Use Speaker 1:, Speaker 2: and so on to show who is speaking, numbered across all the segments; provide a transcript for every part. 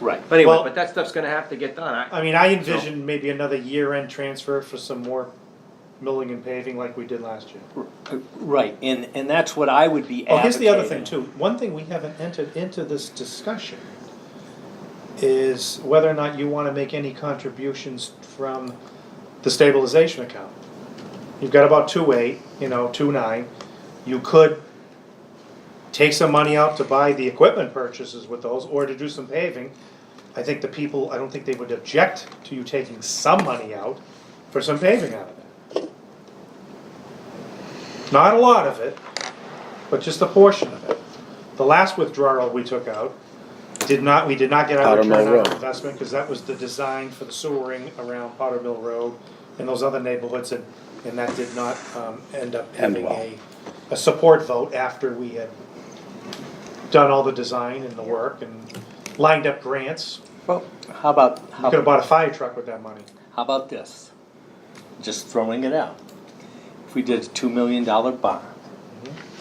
Speaker 1: Right, but anyway,
Speaker 2: Well-
Speaker 1: but that stuff's gonna have to get done, I,
Speaker 2: I mean, I envision maybe another year-end transfer for some more milling and paving like we did last year.
Speaker 3: Right, and, and that's what I would be
Speaker 2: Oh, here's the other thing
Speaker 3: advocating.
Speaker 2: too, one thing we haven't entered into this discussion is whether or not you wanna make any contributions from the stabilization account. You've got about two eight, you know, two nine, you could take some money out to buy the equipment purchases with those, or to do some paving. I think the people, I don't think they would object to you taking some money out for some paving out of it. Not a lot of it, but just a portion of it. The last withdrawal we took out, did not, we did not get our
Speaker 4: Powder Mill
Speaker 2: return on
Speaker 4: Road.
Speaker 2: investment, cause that was the design for the sewering around Powder Mill Road and those other neighborhoods, and, and that did not, um, end up
Speaker 4: End
Speaker 2: having
Speaker 4: well.
Speaker 2: a, a support vote after we had done all the design and the work and lined up grants.
Speaker 3: Well, how about, how
Speaker 2: We could have bought a fire truck with that money.
Speaker 3: How about this? Just throwing it out. If we did a two million dollar bond,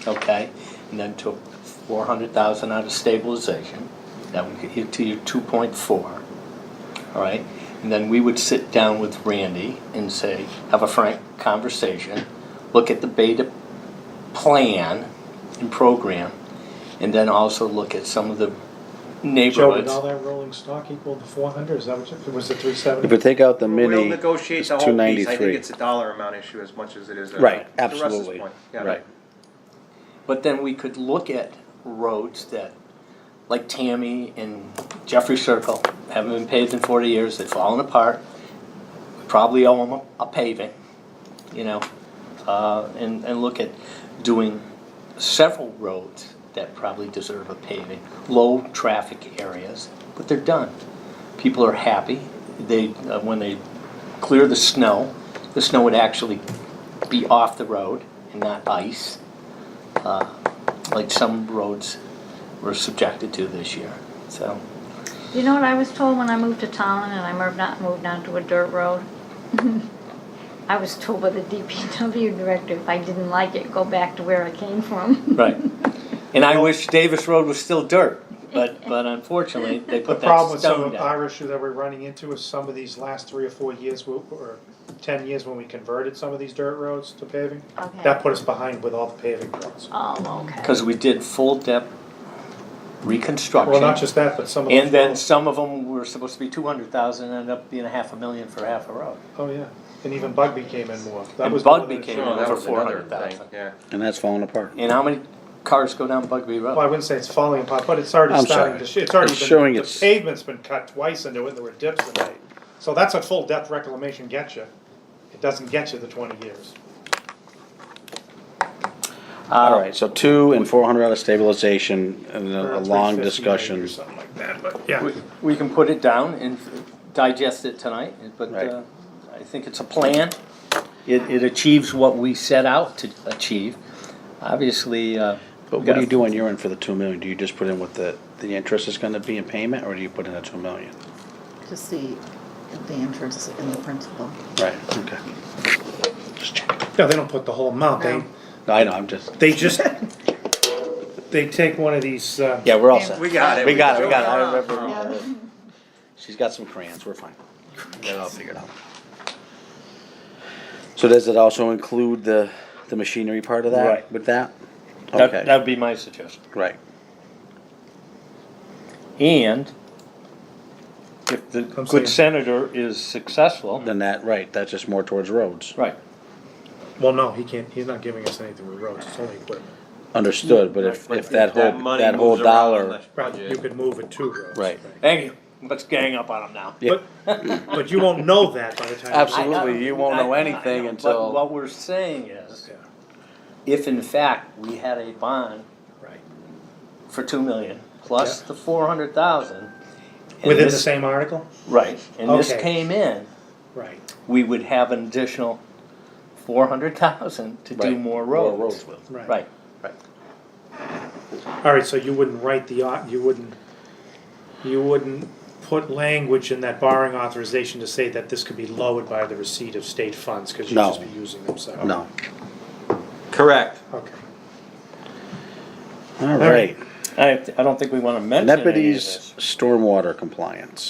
Speaker 3: okay, and then took four hundred thousand out of stabilization, that would get you to your two point four. All right, and then we would sit down with Randy and say, have a frank conversation, look at the beta plan and program, and then also look at some of the
Speaker 2: Joe, did all
Speaker 3: neighborhoods.
Speaker 2: that rolling stock equal the four hundred, is that what, you- was it three seventy?
Speaker 4: If we take out the
Speaker 1: we'll
Speaker 4: mini,
Speaker 1: negotiate
Speaker 4: it's
Speaker 1: the whole piece, I
Speaker 4: 293.
Speaker 1: think it's a dollar amount issue as much as it is a.
Speaker 4: right,
Speaker 1: to Russ's
Speaker 4: absolutely,
Speaker 1: point. Yeah. Oh,
Speaker 4: right.
Speaker 3: But then we could look at roads that, like Tammy and Jeffrey Circle, haven't been paved in forty years, they've fallen apart. We Probably owe them a paving, you know, uh, and, and look at doing several roads that probably deserve a paving, low traffic areas, but they're done. People are happy, they, uh, when they clear the snow, the snow would actually be off the road and not ice uh, like some roads were subjected to this year. So,
Speaker 5: You know what I was told when I moved to Tallinn and I moved not moved onto a dirt road? I was told by the DPW director if I didn't like it, go back to where I came from.
Speaker 3: right. And I wish Davis Road was still dirt, but, but unfortunately, they
Speaker 2: The
Speaker 3: put
Speaker 2: problem
Speaker 3: that
Speaker 2: with some
Speaker 3: stone
Speaker 2: of
Speaker 3: down.
Speaker 2: our issue that we're running into is some of these last three or four years, we- or ten years when we converted some of these dirt roads to paving.
Speaker 5: Okay.
Speaker 2: That put us behind with all the paving roads.
Speaker 5: Oh, okay.
Speaker 3: Because we did full depth
Speaker 2: Well, not
Speaker 3: reconstruction.
Speaker 2: just that, but some of those.
Speaker 3: And then
Speaker 2: roads-
Speaker 3: some of them were supposed to be two hundred thousand, ended up being a half a million for half a road.
Speaker 2: Oh, yeah, and even Bugby came in more. That
Speaker 3: And
Speaker 2: was more
Speaker 3: Bugby
Speaker 2: than-
Speaker 3: came in.
Speaker 1: No, that
Speaker 3: Over
Speaker 1: was another thing,
Speaker 3: 400,000.
Speaker 1: yeah.
Speaker 4: And that's falling apart.
Speaker 3: And how many cars go down Bugby
Speaker 2: Well, I
Speaker 3: Road?
Speaker 2: wouldn't say it's falling apart, but it's already
Speaker 4: I'm
Speaker 2: starting
Speaker 4: sorry.
Speaker 2: to, sh- it's already
Speaker 4: It's showing
Speaker 2: been, the
Speaker 4: it's-
Speaker 2: pavement's been cut twice into it, there were dips in it. So that's what full depth reclamation gets you. It doesn't get you the twenty years.
Speaker 4: Alright, so two and four hundred out of stabilization, and
Speaker 2: Or
Speaker 4: a- a long
Speaker 2: 350 maybe
Speaker 4: discussion.
Speaker 2: Or something like that, but yeah.
Speaker 3: We- We can put it down and digest it tonight, but
Speaker 4: Right.
Speaker 3: uh, I think it's a plan. It, it achieves what we set out to achieve. Obviously, uh.
Speaker 4: But what do you do on your end for the two million? Do you just put in what the, the interest is gonna be in payment, or do you put in the two million?
Speaker 6: Just the, the interest in the principal.
Speaker 4: Right, okay. Just check.
Speaker 2: No, they don't put the whole amount, they,
Speaker 6: No.
Speaker 4: No, I know, I'm just,
Speaker 2: they just, they take one of these, uh,
Speaker 4: yeah, we're all set.
Speaker 1: We got it.
Speaker 4: We got it, we got it, I
Speaker 1: it.
Speaker 4: remember. She's got some crayons, we're fine. Get it all figured out. So does it also include the, the machinery part of that,
Speaker 3: Right.
Speaker 4: with that?
Speaker 3: That,
Speaker 4: Okay,
Speaker 3: that'd be my suggestion.
Speaker 4: right.
Speaker 3: And if the
Speaker 2: Come see
Speaker 3: good
Speaker 2: it.
Speaker 3: senator is successful,
Speaker 4: Then that, right, that's just more towards roads.
Speaker 3: right,
Speaker 2: well, no, he can't, he's not giving us anything with roads, it's only equipment.
Speaker 4: Understood, but if,
Speaker 1: But
Speaker 4: if that whole,
Speaker 1: money
Speaker 4: that whole
Speaker 1: moves around
Speaker 4: dollar,
Speaker 1: the
Speaker 2: You could move it to roads.
Speaker 4: Right.
Speaker 3: thank you, let's gang up on him now.
Speaker 4: Yeah.
Speaker 2: But, but you won't know that by the time. you-
Speaker 4: absolutely, you won't know
Speaker 3: I- I- I
Speaker 4: anything
Speaker 3: know, but
Speaker 4: until,
Speaker 3: What we're saying is,
Speaker 2: Yeah,
Speaker 3: if in fact we had a bond
Speaker 2: Right.
Speaker 3: for two million, plus the four hundred thousand.
Speaker 2: Within the same article?
Speaker 3: Right, and this
Speaker 2: Okay.
Speaker 3: came in,
Speaker 2: Right.
Speaker 3: we would have an additional four hundred thousand to do
Speaker 4: Right.
Speaker 3: more
Speaker 4: More
Speaker 3: roads.
Speaker 4: roads will.
Speaker 2: Right.
Speaker 3: Right,
Speaker 2: All right, so you wouldn't write the, au- you wouldn't, you wouldn't put language in that borrowing authorization to say that this could be lowered by the receipt of state funds, because you'd
Speaker 4: No.
Speaker 2: just be using them, so.
Speaker 4: no.
Speaker 1: Correct.
Speaker 2: Okay.
Speaker 4: All
Speaker 2: right.
Speaker 4: right,
Speaker 3: I, I don't think we wanna mention any of this.
Speaker 4: Nepete's stormwater compliance.